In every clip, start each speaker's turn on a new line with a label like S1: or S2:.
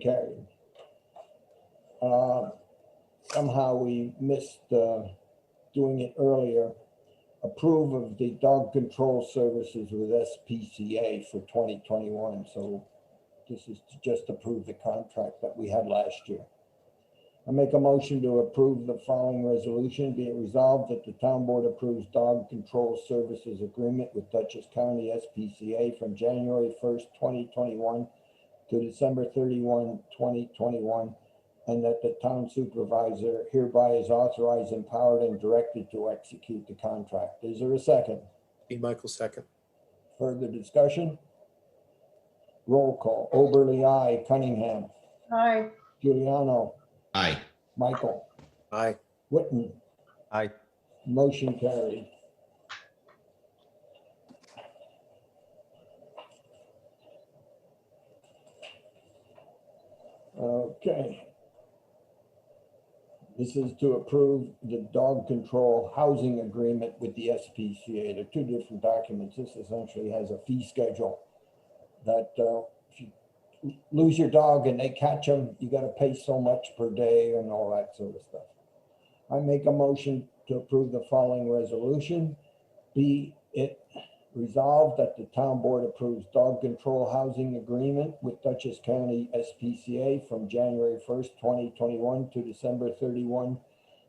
S1: Okay. Uh, Somehow we missed uh, doing it earlier. Approve of the dog control services with SPCA for 2021. So this is to just approve the contract that we had last year. I make a motion to approve the following resolution. Be it resolved that the town board approves dog control services agreement with Dutchess County SPCA from January 1st, 2021 to December 31, 2021, and that the town supervisor hereby is authorized, empowered, and directed to execute the contract. Is there a second?
S2: Dean Michael second.
S1: Further discussion? Roll call. Oberly, I. Cunningham.
S3: Aye.
S1: Giuliano.
S4: Aye.
S1: Michael.
S2: Aye.
S1: Whitten.
S2: Aye.
S1: Motion carried. Okay. This is to approve the dog control housing agreement with the SPCA. They're two different documents. This essentially has a fee schedule that uh, if you lose your dog and they catch them, you got to pay so much per day and all that sort of stuff. I make a motion to approve the following resolution. Be it resolved that the town board approves dog control housing agreement with Dutchess County SPCA from January first, twenty twenty-one to December 31,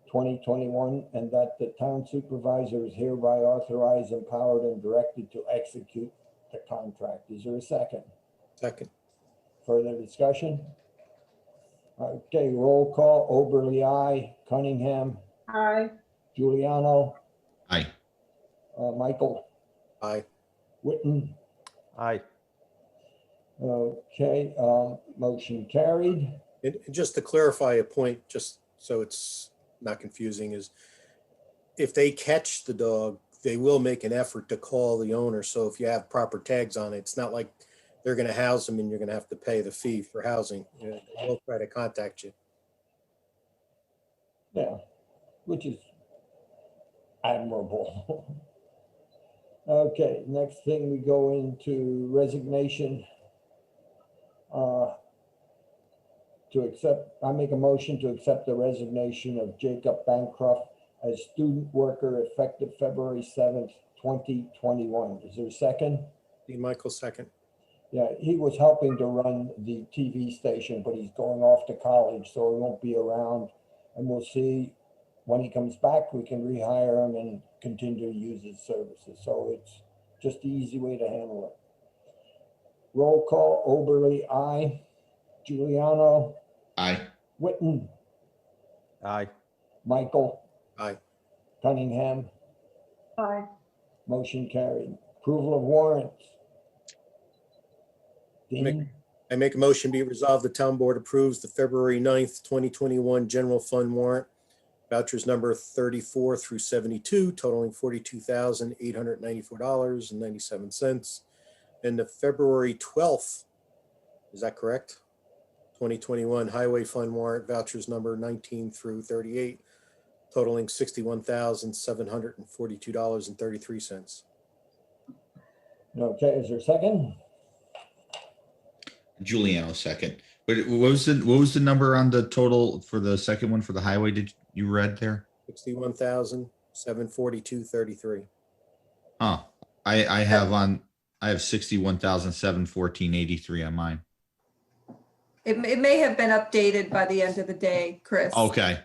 S1: 2021, and that the town supervisor is hereby authorized, empowered, and directed to execute the contract. Is there a second?
S2: Second.
S1: Further discussion? Okay, roll call. Oberly, I. Cunningham.
S3: Aye.
S1: Giuliano,
S4: Aye.
S1: uh, Michael,
S2: Aye.
S1: Witten.
S2: Aye.
S1: Okay, um, motion carried.
S2: And, and just to clarify a point, just so it's not confusing, is if they catch the dog, they will make an effort to call the owner. So if you have proper tags on it, it's not like they're gonna house them and you're gonna have to pay the fee for housing. Yeah, They will try to contact you.
S1: Yeah, which is admirable. Okay, next thing we go into resignation. Uh, To accept, I make a motion to accept the resignation of Jacob Bancroft as student worker effective February seventh, twenty twenty-one. Is there a second?
S2: Dean Michael second.
S1: Yeah, he was helping to run the TV station, but he's going off to college, so he won't be around. And we'll see when he comes back, we can rehire him and continue to use his services. So it's just the easy way to handle it. Roll call, Oberly, aye. Giuliano,
S4: Aye.
S1: Witten,
S4: Aye.
S1: Michael.
S2: Aye.
S1: Cunningham,
S3: Aye.
S1: motion carried. Approval of warrants. Dean,
S2: I make a motion be resolved, the town board approves the February 9th, twenty twenty-one general fund warrant. Vouchers number thirty-four through seventy-two totaling forty-two thousand eight hundred ninety-four dollars and ninety-seven cents. And the February twelfth, is that correct? Twenty twenty-one highway fund warrant vouchers number nineteen through thirty-eight totaling sixty-one thousand seven hundred and forty-two dollars and thirty-three cents.
S1: okay, is there a second?
S4: Giuliano second. But it- what was the, what was the number on the total for the second one for the highway? Did you read there?
S2: Sixty-one thousand seven forty-two thirty-three.
S4: Oh, I, I have on, I have sixty-one thousand seven fourteen eighty-three on mine.
S5: It, m- it may have been updated by the end of the day, Chris.
S4: Okay,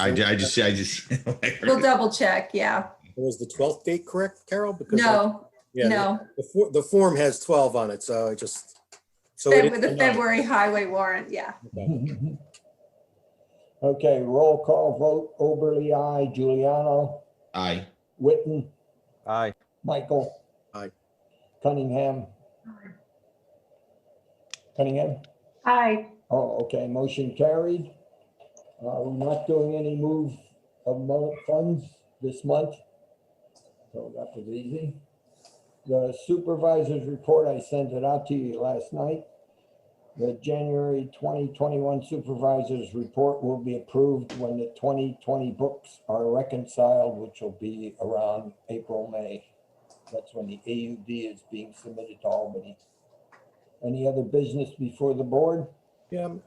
S4: I, ju- I just, I just.
S5: We'll double check, yeah.
S2: Was the twelfth date correct, Carol? Because I-
S5: No,
S2: yeah,
S5: no,
S2: The, for- the form has twelve on it, so I just. so it is
S5: Feb- the
S2: the ninth.
S5: February highway warrant, yeah.
S1: Okay, roll call vote, Oberly, I, Giuliano,
S4: Aye.
S1: Witten,
S6: Aye.
S1: Michael.
S2: Aye.
S1: Cunningham. Cunningham,
S3: Aye.
S1: oh, okay, motion carried. Uh, we're not doing any move of mo- funds this month. So that was easy. The supervisor's report, I sent it out to you last night. The January 2021 supervisor's report will be approved when the 2020 books are reconciled, which will be around April, May. That's when the AUD is being submitted to Albany. Any other business before the board?
S2: Yeah, I'm-